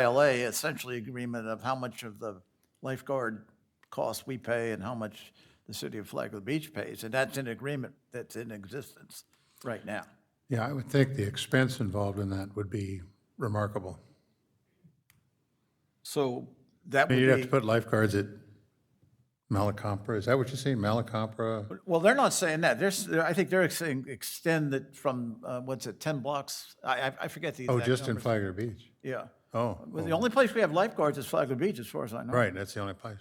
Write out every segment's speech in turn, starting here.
ILA, essentially agreement of how much of the lifeguard costs we pay and how much the city of Flagler Beach pays, and that's an agreement that's in existence right now. Yeah, I would think the expense involved in that would be remarkable. So that You'd have would to be, put lifeguards at Malacompra, is that what you're saying, Malacompra? well, they're not saying that, they're, s- I think they're saying extend it from, uh, what's it, 10 blocks? I, I- I forget the Oh, exact just in numbers. Flagler Beach? Yeah. Oh, Well, The only place we have lifeguards is Flagler Beach, as far as I know. right, that's the only place.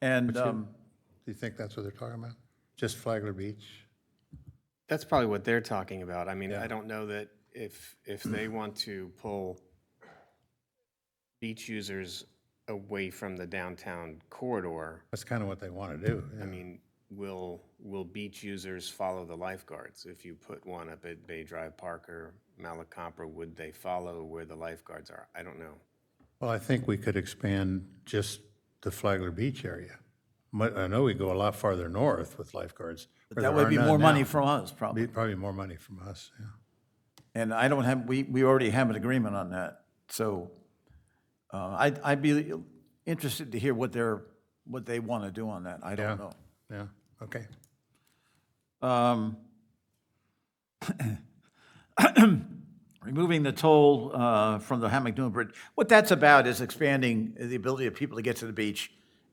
And, um, Do you think that's what they're talking about? Just Flagler Beach? That's probably what they're talking about. I mean, I don't know that if, if they want to pull beach users away from the downtown corridor, That's kind of what they want to do. I yeah. mean, will, will beach users follow the lifeguards? If you put one up at Bay Drive Park or Malacompra, would they follow where the lifeguards are? I don't know. Well, I think we could expand just the Flagler Beach area. But I know we go a lot farther north with lifeguards. where that there would are be none more money now. from us, probably. Be Probably more money from us, yeah. And I don't have, we, we already have an agreement on that. So uh, I'd, I'd be interested to hear what they're, what they want to do on that. I don't know. Yeah, okay. Um, Removing the toll uh, from the Hammock Dune Bridge. What that's about is expanding the ability of people to get to the beach,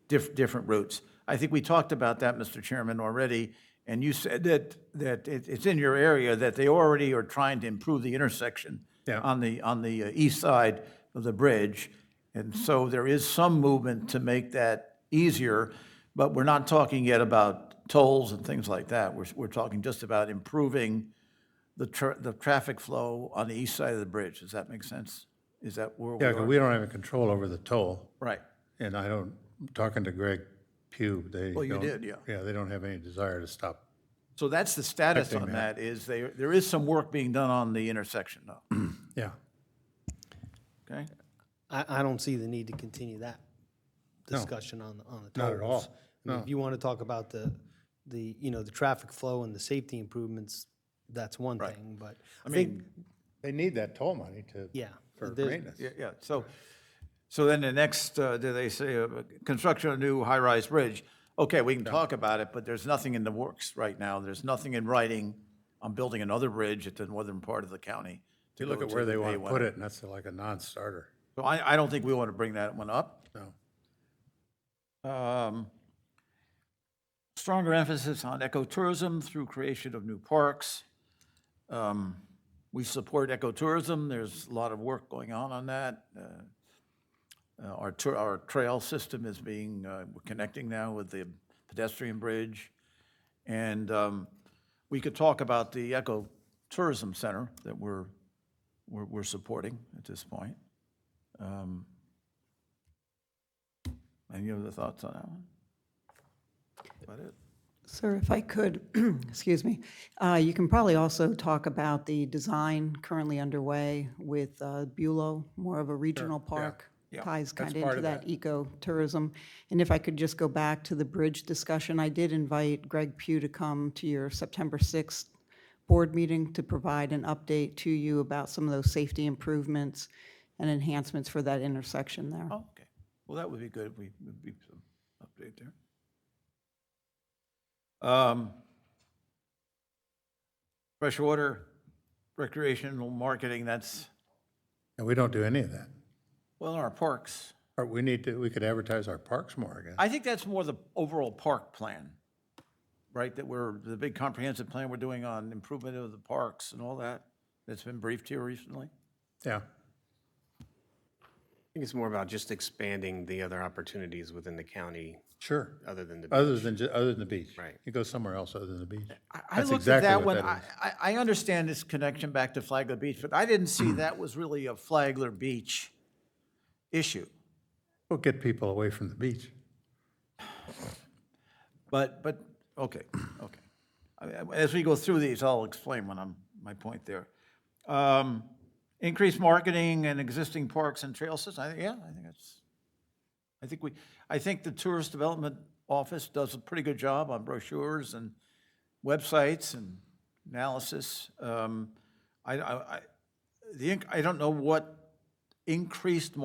diff- different routes. I think we talked about that, Mr. Chairman, already, and you said that, that it- it's in your area, that they already are trying to improve the intersection Yeah. on the, on the uh, east side of the bridge. And so there is some movement to make that easier, but we're not talking yet about tolls and things like that. We're, we're talking just about improving the tr the traffic flow on the east side of the bridge. Does that make sense? Is that where we Yeah, 'cause are? we don't have any control over the toll, Right. and I don't, talking to Greg Pugh, they you don't- did, yeah. Yeah, they don't have any desire to stop. So that's the status on that, is there, there is some work being done on the intersection though, Yeah, okay? I, I don't see the need to continue that discussion on, the- on the tolls. Not at all, I mean, If you want to talk about the, the, you know, the traffic flow and the safety improvements, that's one thing, but I think, they need that toll money to. yeah. For there's- maintenance. Yeah, yeah, so, so then the next, uh, do they say, uh, construction of new high-rise bridge? Okay, we can talk about it, but there's nothing in the works right now. There's nothing in writing on building another bridge at the northern part of the county. You look at where they want to put it, and that's like a non-starter. So I, I don't think we want to bring that one up. No. Um, Stronger emphasis on ecotourism through creation of new parks. Um, We support ecotourism, there's a lot of work going on on that. Uh, uh, Our tour, our trail system is being, uh, we're connecting now with the pedestrian bridge. And um, we could talk about the ecotourism center that we're, we're, we're supporting at this point. Um, Any other thoughts on that one? About it? Sir, if I could, excuse me, uh, you can probably also talk about the design currently underway with uh, Bulow, more of a regional park. Ties kind of into that ecotourism. And if I could just go back to the bridge discussion, I did invite Greg Pugh to come to your September 6th board meeting to provide an update to you about some of those safety improvements and enhancements for that intersection there. Oh, okay. Well, that would be good. We, would be some update there. Um, Freshwater recreational marketing, that's, And we don't do any of that. well, in our parks. Or we need to, we could advertise our parks more, I guess. I think that's more the overall park plan, right? That we're, the big comprehensive plan we're doing on improvement of the parks and all that, that's been briefed here recently. Yeah, I think it's more about just expanding the other opportunities within the county sure. other than the beach. Other than, ju- other than the beach. Right. You go somewhere else other than the beach. I That's looked at exactly that what one, that I, I I understand this connection back to Flagler Beach, but I didn't Hmm. see that was really a Flagler Beach issue. We'll get people away from the beach. But, but, okay, okay. I mean, As we go through these, I'll explain when I'm, my point there. Um, Increased marketing and existing parks and trail systems, I, think- yeah, I think that's, I think we, I think the Tourist Development Office does a pretty good job on brochures and websites and analysis. Um, I, I, I- the, inc- I don't know what increased